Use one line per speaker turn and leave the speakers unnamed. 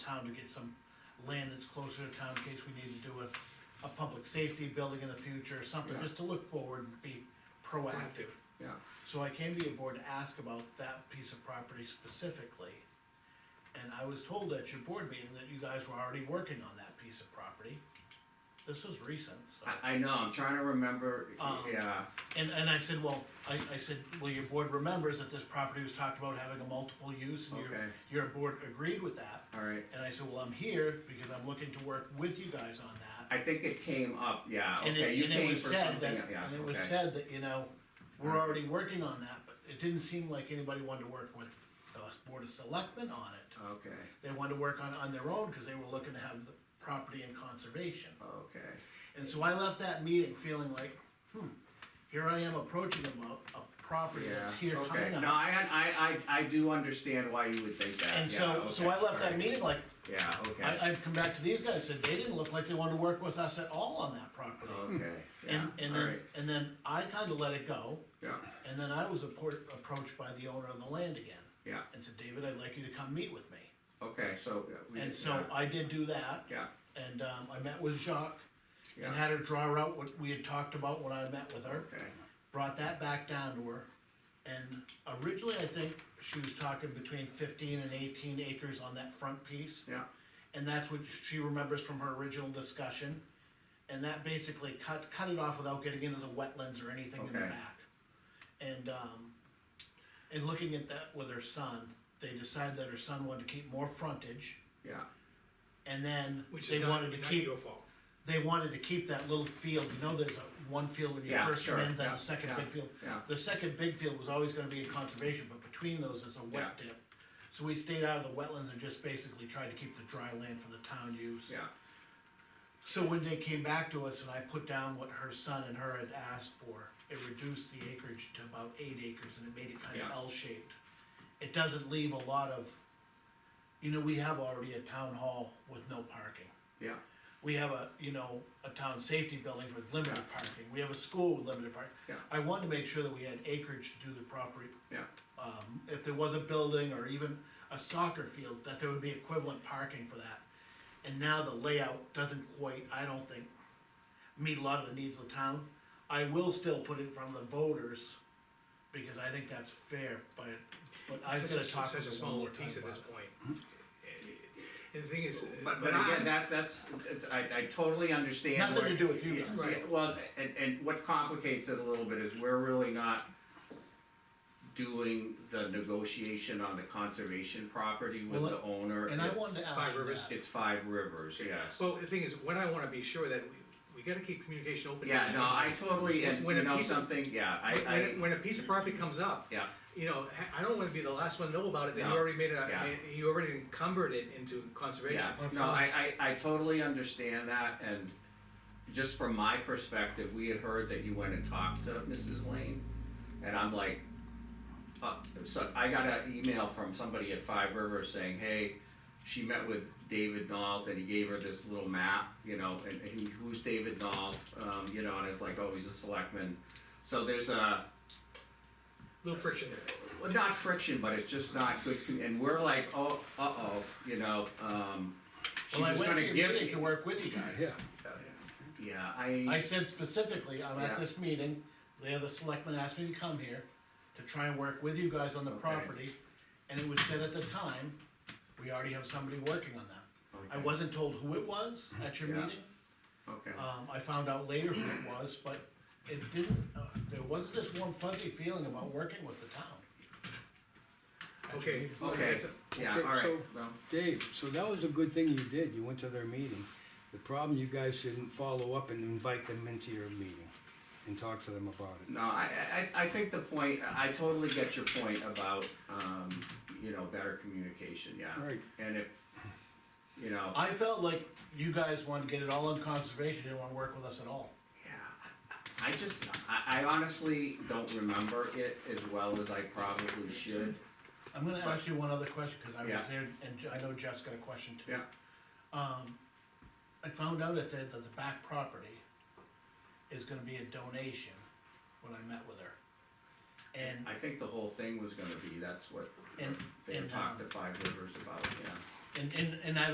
town to get some land that's closer to town in case we need to do a, a public safety building in the future, or something,
Yeah.
just to look forward and be proactive.
yeah,
So I came to your board to ask about that piece of property specifically. And I was told at your board meeting that you guys were already working on that piece of property. This was recent, so.
I, I know, I'm trying to remember,
Um,
yeah,
And, and I said, well, I, I said, well, your board remembers that this property was talked about having a multiple use and your,
Okay.
your board agreed with that.
alright.
And I said, well, I'm here because I'm looking to work with you guys on that.
I think it came up, yeah,
And
okay,
it,
you
and it
came for
was said
something,
that,
else, yeah,
and it was
okay,
said that, you know, we're already working on that, but it didn't seem like anybody wanted to work with the board of selectmen on it.
okay,
They wanted to work on, on their own, cause they were looking to have the property in conservation.
okay.
And so I left that meeting feeling like, hmm, here I am approaching about a property that's
Yeah,
here
okay,
coming
no,
up.
I, had- I, I, I do understand why you would think that,
And
yeah,
so, so
okay,
I left that
alright.
meeting like,
Yeah, okay,
I, I've come back to these guys, said they didn't look like they wanted to work with us at all on that property.
okay, yeah,
And, and then,
alright,
and then I kinda let it go,
yeah,
and then I was appro- approached by the owner of the land again.
yeah,
And said, David, I'd like you to come meet with me.
okay, so. uh, we-
And so I did do that,
Yeah,
and, um, I met with Jacques, and
Yeah.
had her draw out what we had talked about when I met with her.
okay,
Brought that back down to her, and originally, I think she was talking between fifteen and eighteen acres on that front piece.
yeah,
And that's what she remembers from her original discussion. And that basically cut, cut it off without getting into the wetlands or anything in the
Okay.
back. And, um, and looking at that with her son, they decided that her son wanted to keep more frontage.
yeah,
And then
Which
they
is not,
wanted to
not
keep,
your fault.
they wanted to keep that little field, you know, there's a- one field when you
Yeah,
first come
sure,
in, then
yeah,
the second
yeah,
big field.
yeah.
The second big field was always gonna be in conservation, but between those is a wet dip. So we stayed out of the wetlands and just basically tried to keep the dry land for the town use.
yeah,
So when they came back to us and I put down what her son and her had asked for, it reduced the acreage to about eight acres and it made it kind
Yeah.
of L-shaped. It doesn't leave a lot of, you know, we have already a town hall with no parking.
yeah,
We have a, you know, a town safety building with limited parking, we have a school with limited parking.
Yeah.
I wanted to make sure that we had acreage to do the property,
yeah,
um, if there was a building or even a soccer field, that there would be equivalent parking for that. And now the layout doesn't quite, I don't think, meet a lot of the needs of the town. I will still put it in front of the voters, because I think that's fair, but, but I've
Such a,
gotta talk
such
with
a
them one
small
more time
piece at
about
this
it.
point. And the thing is.
Hmm?
uh,
but, but
I-
again, that, that's, I, I totally understand.
Nothing
where-
to do with you
Yeah,
guys.
yeah, Well, and, and what complicates it a little bit is we're really not doing the negotiation on the conservation property with
Well,
the owner.
And I
It's-
wanted to ask
Five
you
Rivers.
that.
It's Five Rivers, yes.
Well, the thing is, what I wanna be sure that, we, we gotta keep communication open. to
Yeah,
each
no,
other.
I totally, and
When
you
a
know
piece of-
something, yeah, I,
When,
I,
when- when a piece of property comes up.
yeah,
You know, I- I don't wanna be the last one to know about it, then you
No,
already made a,
yeah.
made- you already encumbered it into conservation.
yeah. No, I, I, I totally understand that and just from my perspective, we had heard that you went and talked to Mrs. Lane. And I'm like, uh, so I got an email from somebody at Five Rivers saying, hey, she met with David Nault and he gave her this little map, you know, and, and he, who's David Nault? Um, you know, and it's like, oh, he's a selectman. So there's a,
Little friction there.
Well, not friction, but it's just not good, commu- and we're like, oh, uh-oh, you know, um, she
Well, I
was
went
gonna
to
give.
your meeting to work with you guys.
Yeah,
I
I,
said specifically, I'm
Yeah.
at this meeting, the other selectmen asked me to come here to try and work with you guys on the
Okay.
property. And it was said at the time, we already have somebody working on that. I
Okay.
wasn't told who it was at your
Yeah.
meeting,
okay,
um, I found out later who it was, but it didn't, uh, there wasn't this warm fuzzy feeling about working with the town.
Okay.
okay,
that's a-
yeah,
Okay,
alright,
so-
well,
Dave, so that was a good thing you did, you went to their meeting. The problem, you guys didn't follow up and invite them into your meeting and talk to them about it.
no, I, I, I think the point, I totally get your point about, um, you know, better communication, yeah.
Right.
And if, you know,
I felt like you guys wanted to get it all in conservation, didn't wanna work with us at all.
yeah, I- I just, I, I honestly don't remember it as well as I probably should,
I'm gonna ask you one other question, cause I was
Yeah.
there, and Je- I know Jeff's got a question too.
yeah,
Um, I found out at the, that the back property is gonna be a donation when I met with her. And,
I think the whole thing was gonna be, that's what
and,
they
and,
talked
um,
to Five Rivers about, yeah.
and, and, and I